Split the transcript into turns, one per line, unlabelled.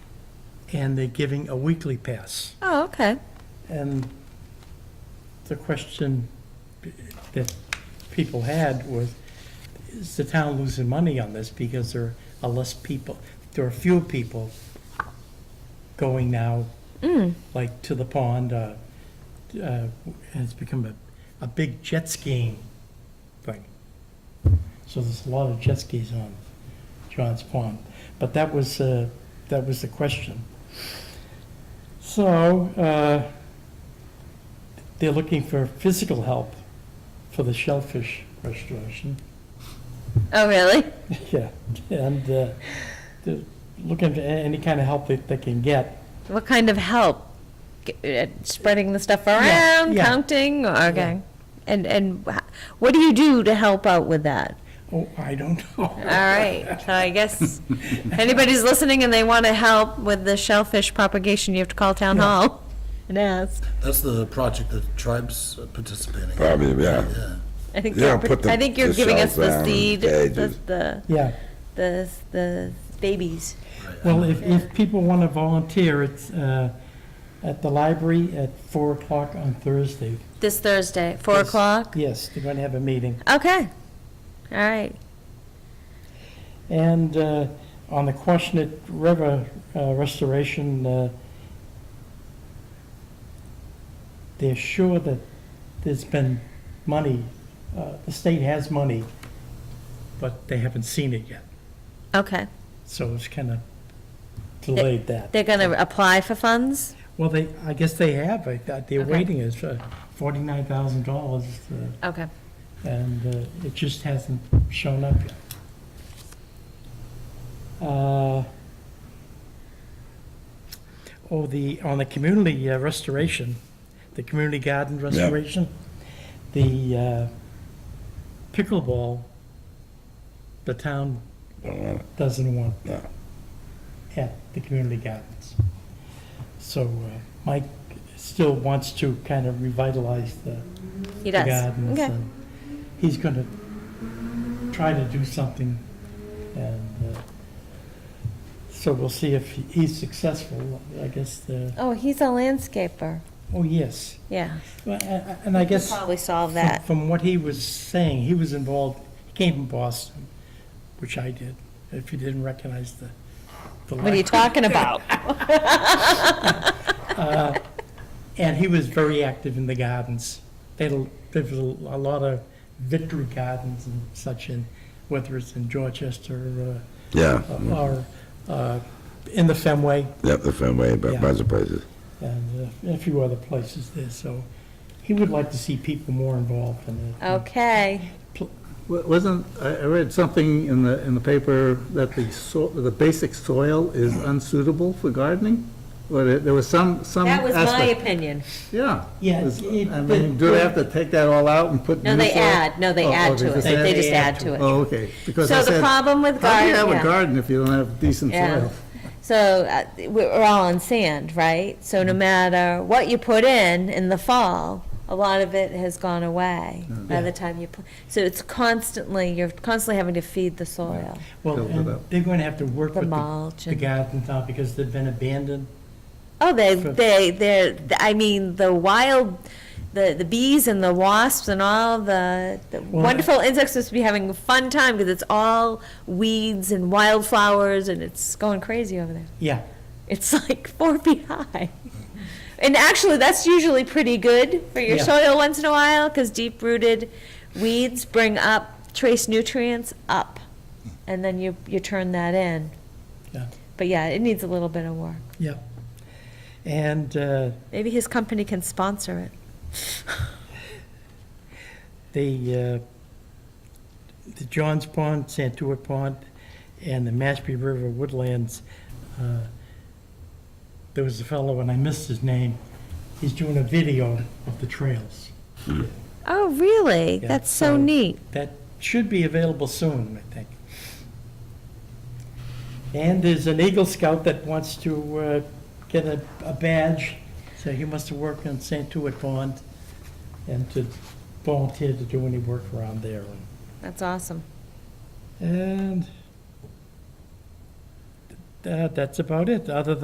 and they're giving a weekly pass.
Oh, okay.
And the question that people had was, is the town losing money on this because there are less people, there are fewer people going now, like to the pond, uh, uh, and it's become a, a big jet skiing thing. So there's a lot of jet skis on John's Pond. But that was, uh, that was the question. So, uh, they're looking for physical help for the shellfish restoration.
Oh, really?
Yeah, and uh, they're looking for a- any kind of help that they can get.
What kind of help? G- uh, Spreading the stuff
Yeah,
around,
yeah.
counting? Okay. And, and wha- what do you do to help out with that?
Oh, I don't
All
know.
right, so I guess anybody's listening and they want to help with the shellfish propagation, you have to call town
Yeah.
hall and ask.
That's the project that tribes are participating in.
Probably, yeah.
Yeah.
I think
Yeah,
you're,
put the-
I think you're
the
giving us the
shells down,
seed, the,
cages.
the,
Yeah,
the, the babies.
right.
well, if, if people want to volunteer, it's uh, at the library at four o'clock on Thursday.
This Thursday, four
Yes.
o'clock?
Yes, they're going to have a meeting.
Okay, all right.
And uh, on the Quashnet River uh, restoration, uh, they're sure that there's been money, uh, the state has money, but they haven't seen it yet.
Okay,
So it's kind of delayed that.
they're gonna apply for funds?
Well, they, I guess they have, I thought they're
Okay.
waiting, it's uh, $49,000, uh,
Okay,
and uh, it just hasn't shown up yet. Uh, Oh, the, on the community uh, restoration, the community garden restoration, the uh, pickleball, the town
Don't want it,
doesn't want
no.
at the community gardens. So uh, Mike still wants to kind of revitalize the the
he does.
gardens,
Okay,
and He's going to try to do something, and uh, so we'll see if he- he's successful, I guess, the,
oh, he's a landscaper,
oh, yes.
yeah.
Well, a- a- And I guess,
Probably solve
from-
that.
from what he was saying, he was involved, he came from Boston, which I did, if you didn't recognize the. the
What are you
language.
talking about?
And he was very active in the gardens. They had, a- there was a a lot of victory gardens and such in, whether it's in Dorchester
Yeah,
or, uh, or um, uh, in the Fenway
yep, the Fenway, but
Yeah.
bunch of places.
and uh, a few other places there. So he would like to see people more involved in it.
Oh. Okay,
Wa- Wasn't, I I read something in the, in the paper that the, so- the basic soil is unsuitable for gardening? Or there- there was some, some
Um,
that was my
aspect?
opinion.
Yeah.
Yeah,
Was-
it-
I mean, do they have to take that all out and put new
No,
soil?
they add, no, they
Oh, oh,
add
they
to it,
just
they
add?
just add to it.
Oh, okay. Because I
So the
said,
problem with
How do you
garden,
have a
yeah,
garden if you don't have decent
Yeah.
soil?
so uh, we're we're all on sand, right? So
Mm-hmm.
no matter what you put in in the fall, a lot of it has gone away
Mm-hmm.
by the time you, pl- so it's constantly, you're constantly having to feed the soil.
Well,
Build it
and
up.
they're going to have to work
The
with the-
mulch
the
and-
garden town because they've been abandoned.
Oh, they,
For-
they, they're, I mean, the wild, the, the bees and the wasps and all the, the
Well,
wonderful insects must be having a fun time because it's all weeds and wildflowers and it's going crazy over there.
Yeah,
It's like four feet high. And actually, that's usually pretty good for your
Yeah.
soil once in a while because deep rooted weeds bring up trace nutrients up. And then you, you turn that in.
Yeah.
But yeah, it needs a little bit of work.
yeah. And uh,
Maybe his company can sponsor it.
the, uh, the Johns Pond, Santuit Pond, and the Mashpee River Woodlands, uh, there was a fellow, and I missed his name, he's doing a video of the trails.
Oh, really?
Yeah,
That's so
so-
neat.
That should be available soon, I think. And there's an Eagle Scout that wants to uh, get a a badge, so he must have worked on Santuit Pond, and to volunteer to do any work around there. And
That's awesome.
And that, that's about it, other than